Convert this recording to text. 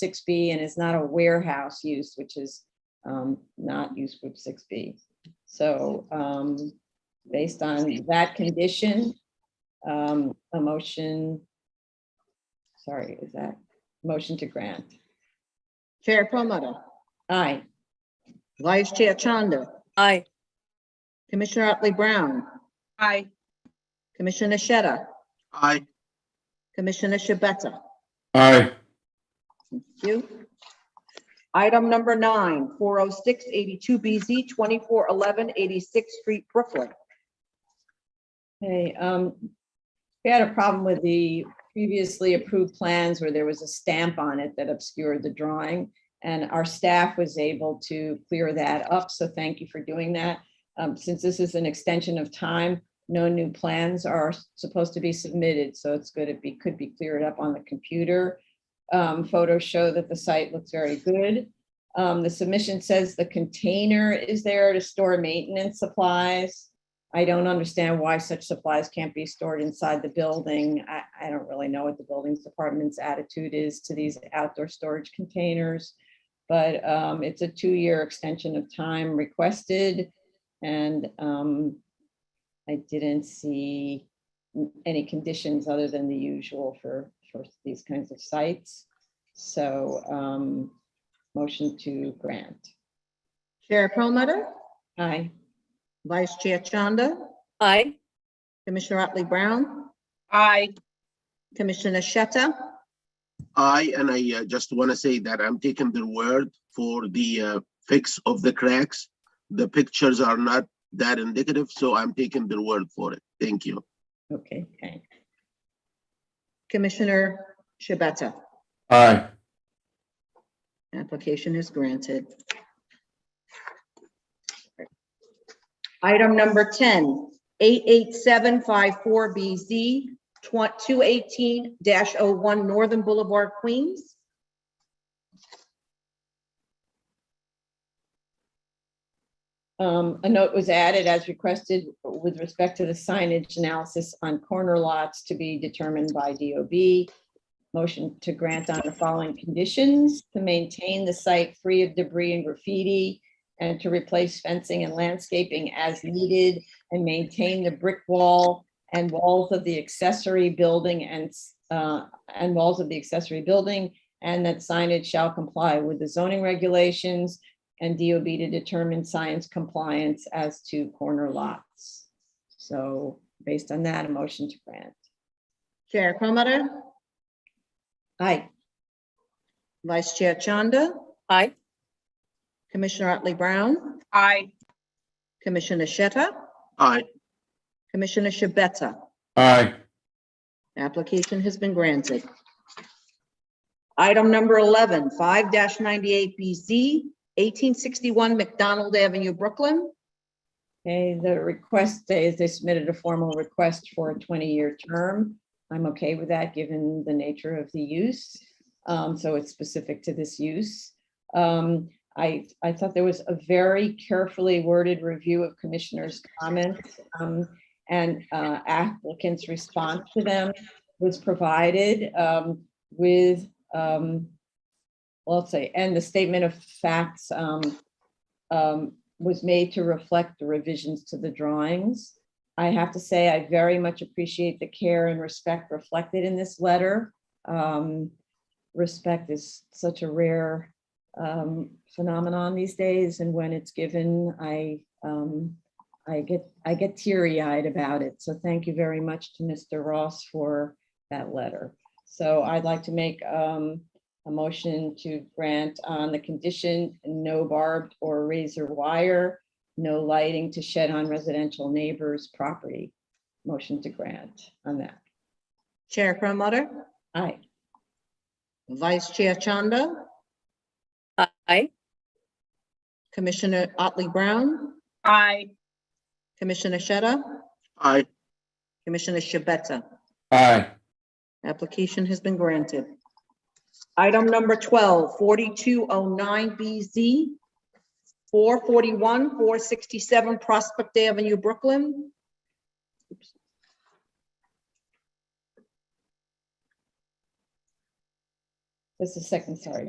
six B and is not a warehouse use, which is um, not use group six B. So um, based on that condition, um, a motion, sorry, is that motion to grant? Chair Promoter, Aye. Vice Chair Chanda, Aye. Commissioner Otley Brown, Aye. Commissioner Shetta, Aye. Commissioner Shabeta. aye, Thank you. Item number nine, 406-82BZ, 2411 86th Street, Brooklyn. Hey, um, we had a problem with the previously approved plans where there was a stamp on it that obscured the drawing. And our staff was able to clear that up, so thank you for doing that. Um, since this is an extension of time, no new plans are supposed to be submitted, so it's good if it could be cleared up on the computer. Um, photos show that the site looks very good. Um, the submission says the container is there to store maintenance supplies. I don't understand why such supplies can't be stored inside the building. I, I don't really know what the buildings department's attitude is to these outdoor storage containers. But um, it's a two-year extension of time requested and um, I didn't see n- any conditions other than the usual for, for these kinds of sites. So um, motion to grant. Chair Promoter, Aye. Vice Chair Chanda, Aye. Commissioner Otley Brown, Aye. Commissioner Shetta. Aye, and I uh, just want to say that I'm taking their word for the uh, fix of the cracks. The pictures are not that indicative, so I'm taking their word for it. Thank you. Okay, thanks. Commissioner Shabeta. aye, Application is granted. Item number 10, 88754BZ, 218-01 Northern Boulevard, Queens. Um, a note was added as requested with respect to the signage analysis on corner lots to be determined by DOB. Motion to grant on the following conditions, to maintain the site free of debris and graffiti and to replace fencing and landscaping as needed and maintain the brick wall and walls of the accessory building and, uh, and walls of the accessory building and that signage shall comply with the zoning regulations and DOB to determine science compliance as to corner lots. So based on that, a motion to grant. Chair Promoter, Aye, Vice Chair Chanda, Aye. Commissioner Otley Brown, Aye. Commissioner Shetta, Aye, Commissioner Shabeta. aye, Application has been granted. Item number 11, 5-98BZ, 1861 McDonald Avenue, Brooklyn. okay, the request is they submitted a formal request for a twenty-year term. I'm okay with that, given the nature of the use. Um, so it's specific to this use. Um, I, I thought there was a very carefully worded review of commissioners' comments. um, and uh, applicants' response to them was provided um, with, um, well, let's say, and the statement of facts um, um, was made to reflect the revisions to the drawings. I have to say, I very much appreciate the care and respect reflected in this letter. Um, Respect is such a rare um, phenomenon these days, and when it's given, I um, I get, I get teary eyed about it. So thank you very much to Mr. Ross for that letter. So I'd like to make um, a motion to grant on the condition, no barbed or razor wire, no lighting to shed on residential neighbors' property. Motion to grant on that. Chair Promoter, Aye. Vice Chair Chanda, Aye. Commissioner Otley Brown, Aye. Commissioner Shetta, aye, Commissioner Shabeta. aye, Application has been granted. Item number oh 12, 4209BZ, 441, 467 Prospect Avenue, Brooklyn. Just a second, sorry.